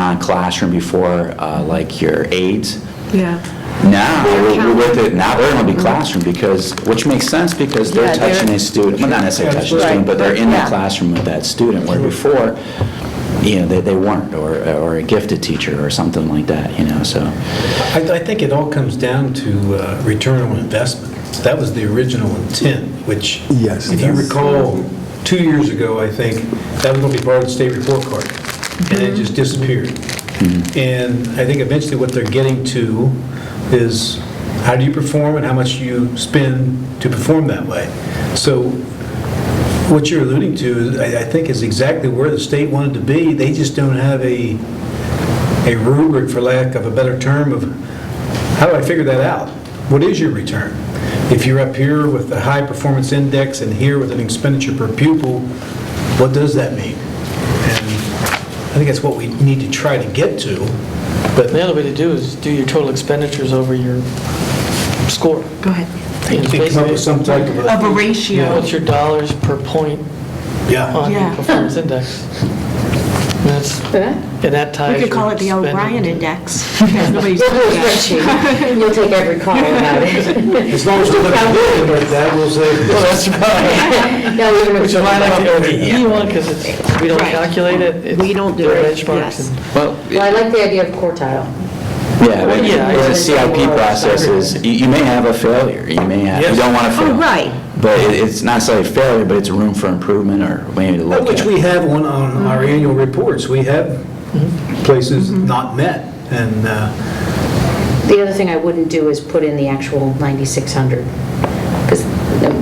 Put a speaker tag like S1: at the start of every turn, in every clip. S1: non-classroom before, uh, like your aides.
S2: Yeah.
S1: Now,
S2: They're Mm-hmm.
S1: we're- we're with it, now they're going to be classroom because, which makes sense because they're
S2: Yeah, they're-
S1: touching a student, well, not necessarily touching a student, but they're in the
S2: Right.
S1: classroom with that student, where before, you know, they they weren't, or or a gifted teacher or something like that, you know, so.
S3: I, I think it all comes down to uh, return on investment. That was the original intent, which,
S4: Yes.
S3: if you recall, two years ago, I think, that was going to be part of the state report card, and it just disappeared. And I think eventually what they're getting to is how do you perform and how much you spend to perform that way. So what you're alluding to, is- I I think, is exactly where the state wanted to be. They just don't have a a rubric, for lack of a better term, of how do I figure that out? What is your return? If you're up here with the high performance index and here with an expenditure per pupil, what does that mean? And I think that's what we need to try to get to, but
S5: The other way to do is do your total expenditures over your score.
S2: Go ahead.
S3: you can come up with some type of
S2: Of a
S3: a...
S2: ratio.
S5: What's your dollars per point
S3: Yeah,
S5: on your
S2: Yeah.
S5: performance index? And that's- and that
S2: We
S5: ties.
S2: could call it the
S5: your spending.
S2: O'Brien Index. because nobody's doing that.
S6: You'll take every call about it.
S3: as long as we're looking at it like that, we'll
S5: Well,
S3: say,
S5: that's right.
S6: No, you're
S5: Which is why I like the OBE one, because it's, we don't
S2: Right.
S5: calculate it. it's-
S2: We don't do
S5: they're
S2: it,
S5: benchmarks
S2: yes.
S5: and-
S1: Well,
S6: Well, I like the idea of quartile.
S1: Yeah, but
S5: Yeah,
S1: the
S6: it's-
S1: CIP process is, you you may have a failure, you may have, you
S3: Yes.
S1: don't want to fail.
S2: Oh, right.
S1: But it- it's not necessarily a failure, but it's room for improvement or maybe to look at.
S3: which we have on, on our
S6: Mm-hmm.
S3: annual reports, we have places not met, and uh,
S6: The other thing I wouldn't do is put in the actual 9,600, because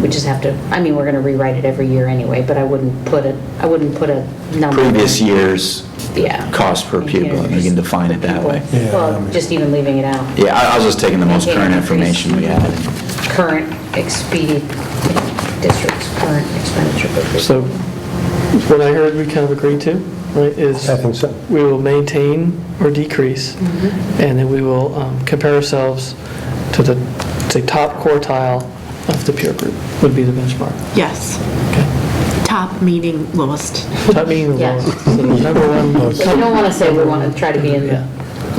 S6: we just have to, I mean, we're going to rewrite it every year anyway, but I wouldn't put a, I wouldn't put a number.
S1: Previous year's
S6: Yeah.
S1: cost per pupil, you can define it that way.
S4: Yeah, I
S6: Well,
S4: mean-
S6: just even leaving it out.
S1: Yeah, I I was just taking the most current information we had.
S6: Current expedient districts, current expenditure. per
S5: So what I heard we kind of agreed to, right, is
S4: I think so.
S5: we will maintain or decrease, and then we will um, compare ourselves to the, to top quartile of the peer group, would be the benchmark.
S2: Yes. Top meaning lowest.
S5: Top meaning the
S6: Yeah.
S5: lowest. So the number one,
S6: pupil. We don't want to say we want to try to be in the,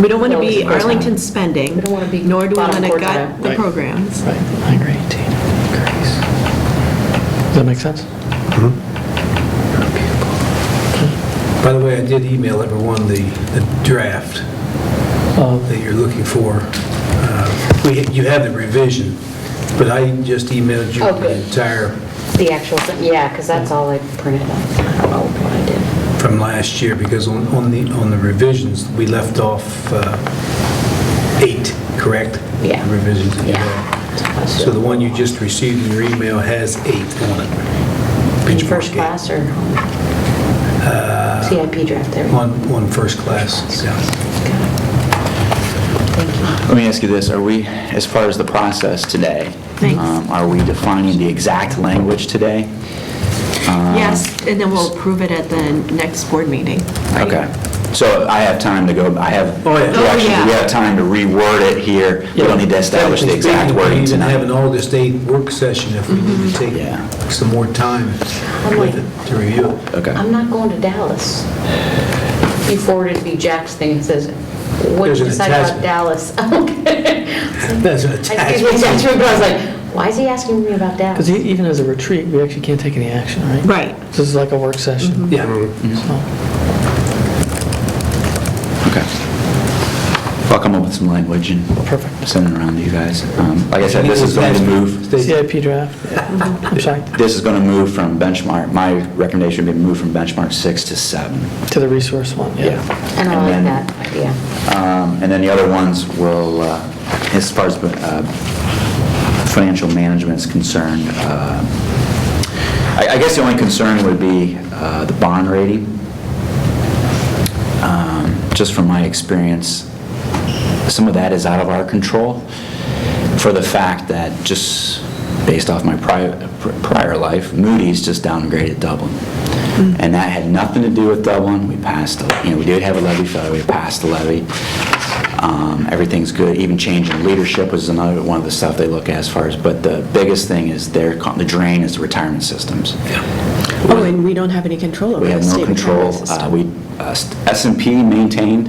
S2: We don't want to be
S6: Lowest quartile.
S2: Arlington spending,
S6: We don't wanna be
S2: nor do we want
S6: bottom
S2: to gut
S6: quartile.
S2: the
S5: Right.
S2: programs.
S5: right, I agree, Tina, decrease. Does that make sense?
S3: By the way, I did email everyone the the draft
S6: Oh.
S3: that you're looking for. Uh, we- You have the revision, but I just emailed you
S6: Oh, good.
S3: the entire,
S6: the actual, thing. yeah, because that's all I printed up. Oh, what I did.
S3: from last year, because on on the, on the revisions, we left off uh, eight, correct?
S6: Yeah.
S3: The Revisions. that you
S6: Yeah.
S3: had. So the one you just received in your email has eight on it.
S6: In
S3: Benchmark
S6: first
S3: eight.
S6: class or CIP draft there?
S3: On, on first class, yeah.
S1: Let me ask you this, are we, as far as the process today?
S2: Thanks.
S1: um, Are we defining the exact language today?
S6: Uh,
S2: Yes, and then we'll approve it at the next board meeting. right?
S1: Okay, so I have time to go, I have.
S3: Oh, yeah.
S1: we actually-
S2: Oh, yeah.
S1: We have time to reword it here, we don't need to establish the exact
S3: Technically
S1: wording
S3: speaking, We even have an
S1: tonight. Mm-hmm.
S3: August 8th work session if we need to
S1: Yeah.
S3: take some more time with it to review it.
S1: Okay.
S6: I'm not going to Dallas. He forwarded me Jack's thing, it says, what did
S3: There's
S6: you
S3: an
S6: decide about
S3: attachment.
S6: Dallas? Okay.
S3: That's an
S6: I see the
S3: attachment.
S6: attachment, but I was like, why is he asking me about
S5: Because e-,
S6: Dallas?
S5: even as a retreat, we actually can't take any action, right?
S2: Right.
S5: This is like a work session.
S3: Yeah.
S5: so.
S1: Okay. I'll come up with some language and
S5: Perfect.
S1: send it around to you guys. Um, Like I said, this is going to move,
S5: CIP draft, yeah. I'm sorry,
S1: this is going to move from benchmark, my recommendation would be move from benchmark six to seven.
S5: to the resource one, yeah.
S6: And I like
S1: then-
S6: that idea.
S1: Um, And then the other ones will, uh, as far as uh, financial management is concerned, uh, I I guess the only concern would be uh, the bond rating. Um, Just from my experience, some of that is out of our control for the fact that, just based off my prior prior life, Moody's just downgraded Dublin. And that had nothing to do with Dublin. We passed, the- you know, we did have a levy failure, we passed the levy. Um, Everything's good, even change in leadership was another, one of the stuff they look at as far as, but the biggest thing is their, co- the drain is the retirement systems.
S2: Oh, and we don't have any control over
S1: We
S2: the
S1: have no
S2: state retirement
S1: control.
S2: system.
S1: Uh, We, s and p maintained